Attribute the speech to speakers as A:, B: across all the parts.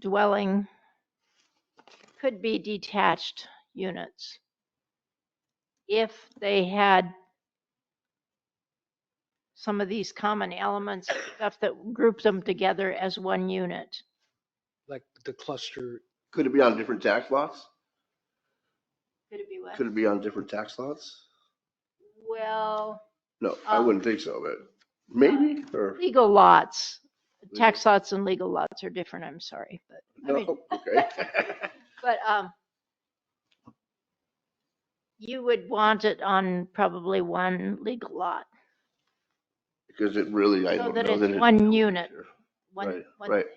A: dwelling could be detached units if they had some of these common elements, and stuff that group them together as one unit.
B: like the cluster,
C: Could it be on different tax lots?
A: Could it be what?
C: Could it be on different tax lots?
A: Well,
C: No, I
A: Um,
C: wouldn't think so, but maybe, or,
A: legal lots, tax lots and legal lots are different, I'm sorry, but, I mean,
C: no, okay.
A: but, um, you would want it on probably one legal lot,
C: Because it really, I
A: So
C: don't
A: that
C: know.
A: it's
C: that it-
A: one unit. one,
C: Right,
A: one
C: right.
A: thing.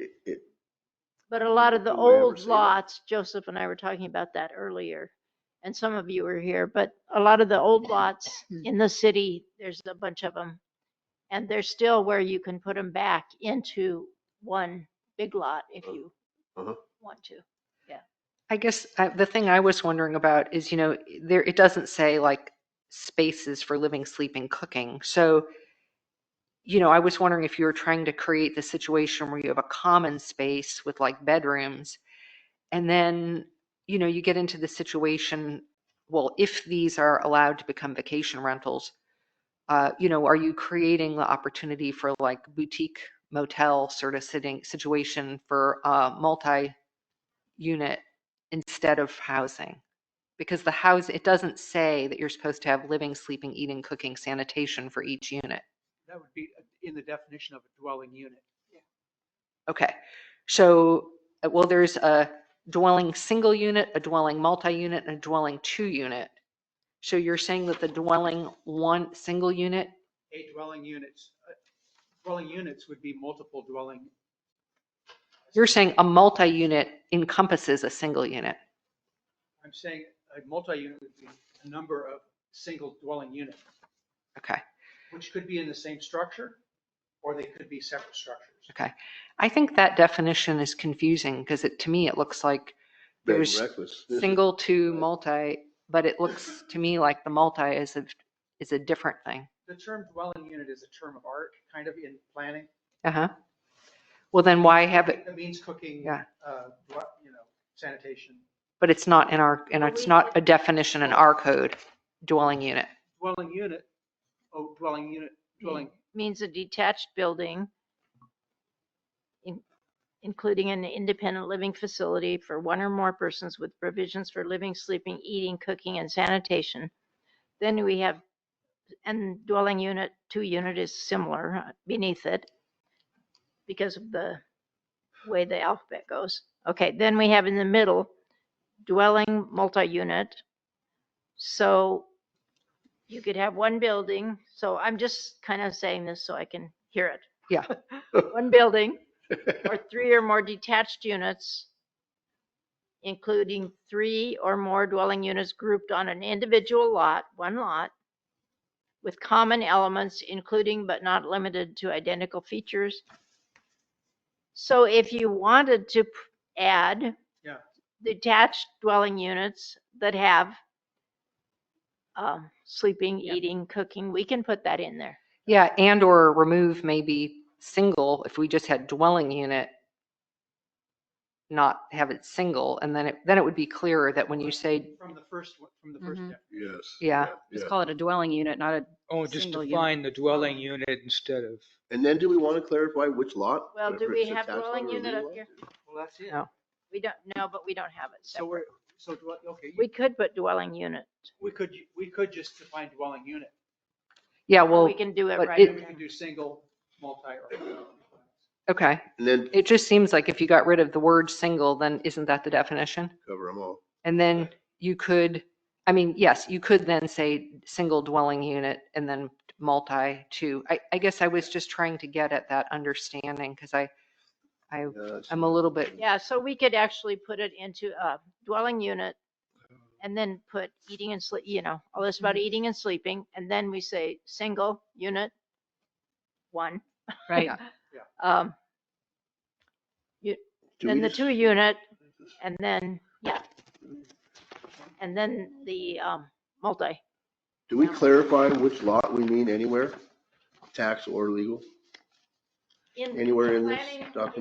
C: It, it,
A: But a lot of the
C: Did we ever
A: old
C: see that?
A: lots, Joseph and I were talking about that earlier, and some of you were here, but a lot of the old lots
C: Hmm.
A: in the city, there's a bunch of them. And they're still where you can put them back into one big lot if
C: Uh,
A: you
C: uh-huh.
A: want to.
D: I guess uh, the thing I was wondering about is, you know, there, it doesn't say like spaces for living, sleeping, cooking. So, you know, I was wondering if you were trying to create the situation where you have a common space with like bedrooms. And then, you know, you get into the situation, well, if these are allowed to become vacation rentals, uh, you know, are you creating the opportunity for like boutique motel sort of sitting situation for uh, multi-unit instead of housing. Because the house, it doesn't say that you're supposed to have living, sleeping, eating, cooking, sanitation for each unit.
B: that would be uh, in the definition of a dwelling unit.
D: Okay, so, uh, well, there's a dwelling single unit, a dwelling multi-unit, and a dwelling two unit. So you're saying that the dwelling one, single unit,
B: A dwelling units, uh, dwelling units would be multiple dwelling.
D: you're saying a multi-unit encompasses a single unit?
B: I'm saying a multi-unit would be a number of single dwelling units,
D: Okay,
B: which could be in the same structure, or they could be separate structures.
D: okay. I think that definition is confusing because it, to me, it looks like
C: bed and
D: There's
C: breakfast.
D: single to multi, but it looks to me like the multi is a, is a different thing.
B: The term dwelling unit is a term of art, kind of in planning.
D: Uh-huh. Well, then why have it,
B: That means cooking,
D: Yeah.
B: uh, dwe- you know, sanitation.
D: but it's not in our, and
A: Well,
D: it's
A: we-
D: not a definition in our code, dwelling unit.
B: Dwelling unit, oh, dwelling unit, dwelling,
A: Means a detached building, in- including an independent living facility for one or more persons with provisions for living, sleeping, eating, cooking, and sanitation. Then we have, and dwelling unit, two unit is similar uh, beneath it because of the way the alphabet goes. Okay, then we have in the middle, dwelling, multi-unit. So you could have one building, so I'm just kind of saying this so I can hear it.
D: Yeah.
A: One building or three or more detached units, including three or more dwelling units grouped on an individual lot, one lot, with common elements, including but not limited to identical features. So if you wanted to p- add
B: Yeah.
A: detached dwelling units that have um, sleeping, eating, cooking, we can put that in there.
D: Yeah, and or remove maybe single, if we just had dwelling unit, not have it single, and then it, then it would be clearer that when you say, Mm-hmm.
B: from the first, one- from the first
E: Mhm.
B: step.
C: Yes.
D: Yeah.
C: yeah.
E: Just call it a dwelling unit, not a,
F: Oh, just
E: Single unit.
F: define the dwelling unit instead of,
C: And then do we want to clarify which lot?
A: Well,
C: If
A: do we
C: it's a
A: have
C: tax lot
A: dwelling
C: or a
A: unit
C: legal
A: up
C: lot?
A: here?
B: Well, that's it.
E: Oh.
D: No.
A: We don't, no, but we don't have it
B: So
A: separate.
B: we're, so, dwell- okay,
A: We could put dwelling unit.
B: we could, we could just define dwelling unit.
D: yeah,
A: or
D: well,
A: We can do it
D: but
A: right.
B: We
D: it-
A: in there.
B: can do single, multi, or.
D: okay.
C: And then
D: It just seems like if you got rid of the word single, then isn't that the definition?
C: cover them all.
D: And then you could, I mean, yes, you could then say single dwelling unit and then multi two. I, I guess I was just trying to get at that understanding because I, I,
C: Yes.
A: Um,
D: I'm a little bit,
A: Yeah, so we could actually put it into a dwelling unit and then put eating and sleep, you know, all this about
C: Mm-hmm.
A: eating and sleeping. And then we say single unit, one.
E: right?
A: Um,
C: Do
A: Then
C: we
A: the
C: just-
A: two unit and then, yeah. And then the um, multi.
C: Do we clarify which lot we mean anywhere? Tax or legal?
A: In-
C: Anywhere in this
A: planning-
C: document?